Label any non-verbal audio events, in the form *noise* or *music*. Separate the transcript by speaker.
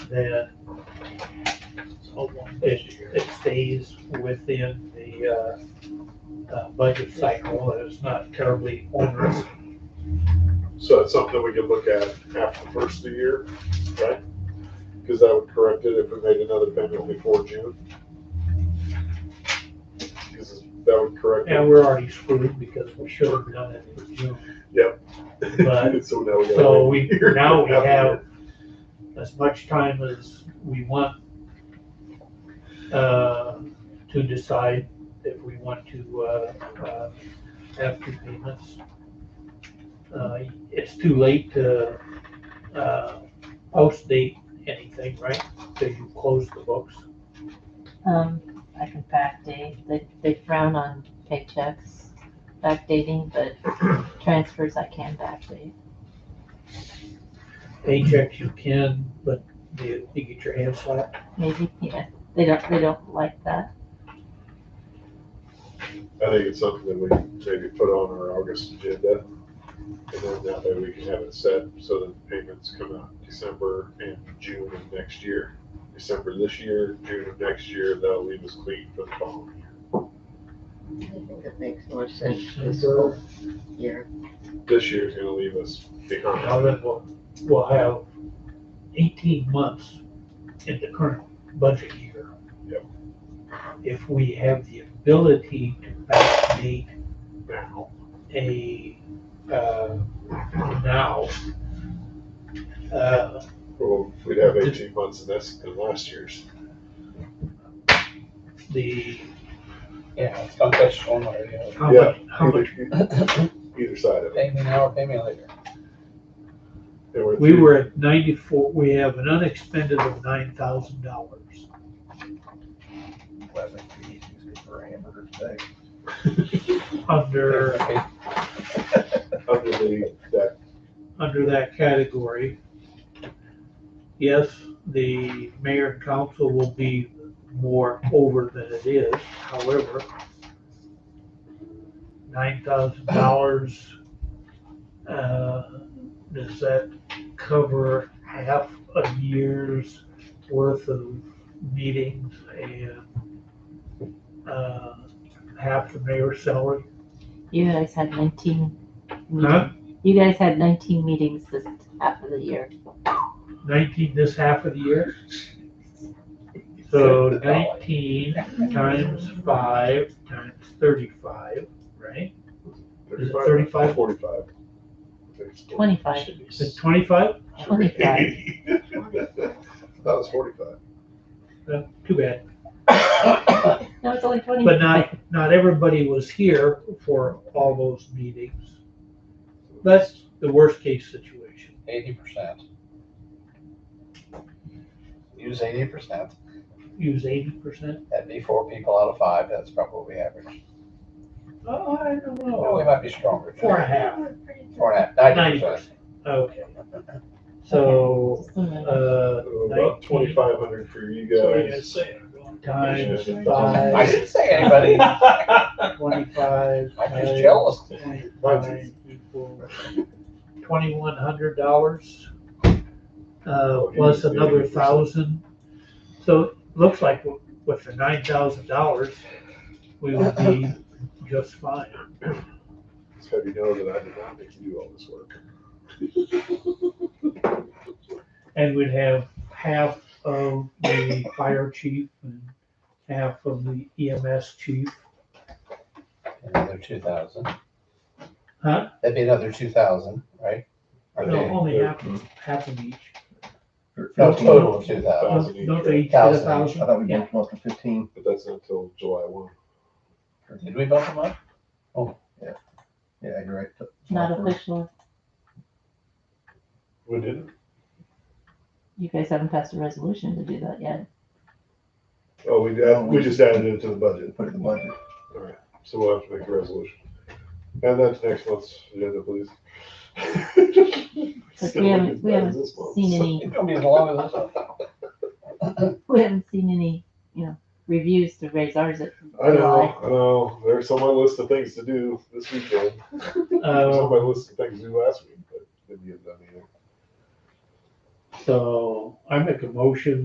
Speaker 1: that oh, it, it stays within the, uh, uh, budget cycle, and it's not terribly onerous.
Speaker 2: So it's something we could look at after the first of the year, right? Because that would correct it if we made another payment before June. Because that would correct
Speaker 1: And
Speaker 2: it.
Speaker 1: we're already screwed because we should have done it in June. but-
Speaker 2: *laughs* So now we gotta
Speaker 1: So
Speaker 2: wait
Speaker 1: we,
Speaker 2: a year.
Speaker 1: now we have as much time as we want uh, to decide if we want to uh, uh, have two payments. Uh, It's too late to uh, post date anything, right? Because you close the books.
Speaker 3: Um, I can backdate, they, they frown on paychecks, backdating,
Speaker 1: *clears throat*
Speaker 3: but transfers I can backdate.
Speaker 1: Paychecks you can, but you you get your hands slapped.
Speaker 3: Maybe, yeah, they don't, they don't like that.
Speaker 2: I think it's something that we maybe put on our August agenda. And then that way we can have it set so that the payments come out December and June of next year. December this year, June of next year, that'll leave us clean for the following year.
Speaker 4: I think it makes more sense this school year.
Speaker 2: This year's gonna leave us behind.
Speaker 1: Now then we'll, we'll have eighteen months in the current budget year.
Speaker 2: Yep.
Speaker 1: If we have the ability to backdate
Speaker 2: now.
Speaker 1: a, uh, now, uh,
Speaker 2: Well, we'd have eighteen months in this than last year's.
Speaker 1: the,
Speaker 5: Yeah, it's not that stormwater, you know.
Speaker 1: how much, how
Speaker 2: Either-
Speaker 1: much,
Speaker 2: Either side of it.
Speaker 5: Pay me now or pay me later.
Speaker 2: There were
Speaker 1: we
Speaker 2: three-
Speaker 1: were at ninety-four, we have an unexpended of nine thousand dollars.
Speaker 5: Eleven, three, two, three, four, hamburger today.
Speaker 1: Under,
Speaker 5: Okay.
Speaker 2: Under the, that,
Speaker 1: under that category. Yes, the mayor and council will be more over than it is, however, nine thousand dollars, uh, does that cover half a year's worth of meetings and, uh, half the mayor's salary?
Speaker 3: You guys had nineteen meetings, you guys had nineteen meetings this half of the year.
Speaker 1: nineteen this half of the year. So
Speaker 5: Good dollar.
Speaker 1: nineteen times five times thirty-five, right? Is it 35?
Speaker 2: thirty-five, forty-five. I think it's
Speaker 3: 25.
Speaker 2: Should be
Speaker 1: Is it twenty-five?
Speaker 3: Twenty-five.
Speaker 2: *laughs* That was forty-five.
Speaker 1: Uh, Too bad.
Speaker 3: No, it's only twenty.
Speaker 1: But not, not everybody was here for all those meetings. That's the worst-case situation.
Speaker 5: Eighty percent. Use eighty percent,
Speaker 1: Use eighty percent.
Speaker 5: that'd be four people out of five, that's probably what we average.
Speaker 1: Oh, I don't
Speaker 5: Well, we
Speaker 1: know.
Speaker 5: might be stronger.
Speaker 1: Four and a half.
Speaker 5: Four and a half, ninety
Speaker 1: Ninety
Speaker 5: percent.
Speaker 1: percent. Okay. So,
Speaker 3: Just a minute.
Speaker 1: uh,
Speaker 2: About
Speaker 1: nineteen.
Speaker 2: twenty-five hundred for you guys.
Speaker 1: times
Speaker 5: I
Speaker 1: five,
Speaker 5: didn't
Speaker 2: *laughs*
Speaker 5: say
Speaker 1: *laughs*
Speaker 5: anybody, I'm
Speaker 1: twenty-five.
Speaker 5: just
Speaker 1: times-
Speaker 5: jealous.
Speaker 1: Nine equals twenty-one hundred dollars,
Speaker 2: Oh,
Speaker 1: uh, plus another thousand. So it looks like w- with the nine thousand dollars, we would
Speaker 2: *laughs*
Speaker 1: be just fine.
Speaker 2: It's gotta be known that I did not make you do all this work.
Speaker 1: And we'd have half of the fire chief and half of the EMS chief.
Speaker 5: Another two thousand.
Speaker 1: Huh?
Speaker 5: That'd be another two thousand, right? Or
Speaker 1: No, Oh.
Speaker 5: they-
Speaker 1: only half, half of each.
Speaker 3: Oh,
Speaker 5: No, total of two thousand.
Speaker 1: No,
Speaker 2: Thousand each,
Speaker 1: Don't
Speaker 2: right?
Speaker 1: they each get a
Speaker 5: Thousand.
Speaker 6: I thought we
Speaker 1: thousand? Yeah,
Speaker 6: bumped them up to fifteen.
Speaker 2: But that's not till July one.
Speaker 5: Did we bump them up?
Speaker 6: Yeah, you're right. But-
Speaker 3: Not official,
Speaker 2: We didn't?
Speaker 3: you guys haven't passed a resolution to do that yet.
Speaker 2: Oh, we did, we just added it to the budget.
Speaker 6: Put it in the budget.
Speaker 2: Alright, so we'll have to make a resolution. And that's next month's agenda, please.
Speaker 3: But we haven't, we haven't
Speaker 2: This month.
Speaker 3: seen any,
Speaker 5: It's gonna be as long as this one.
Speaker 3: we haven't seen any, you know, reviews to raise ours at
Speaker 2: I
Speaker 3: July.
Speaker 2: know, I know, there's on my list of things to do this weekend, there's
Speaker 1: Uh,
Speaker 2: on my list of things to do last week, but didn't get done either.
Speaker 1: So I make a motion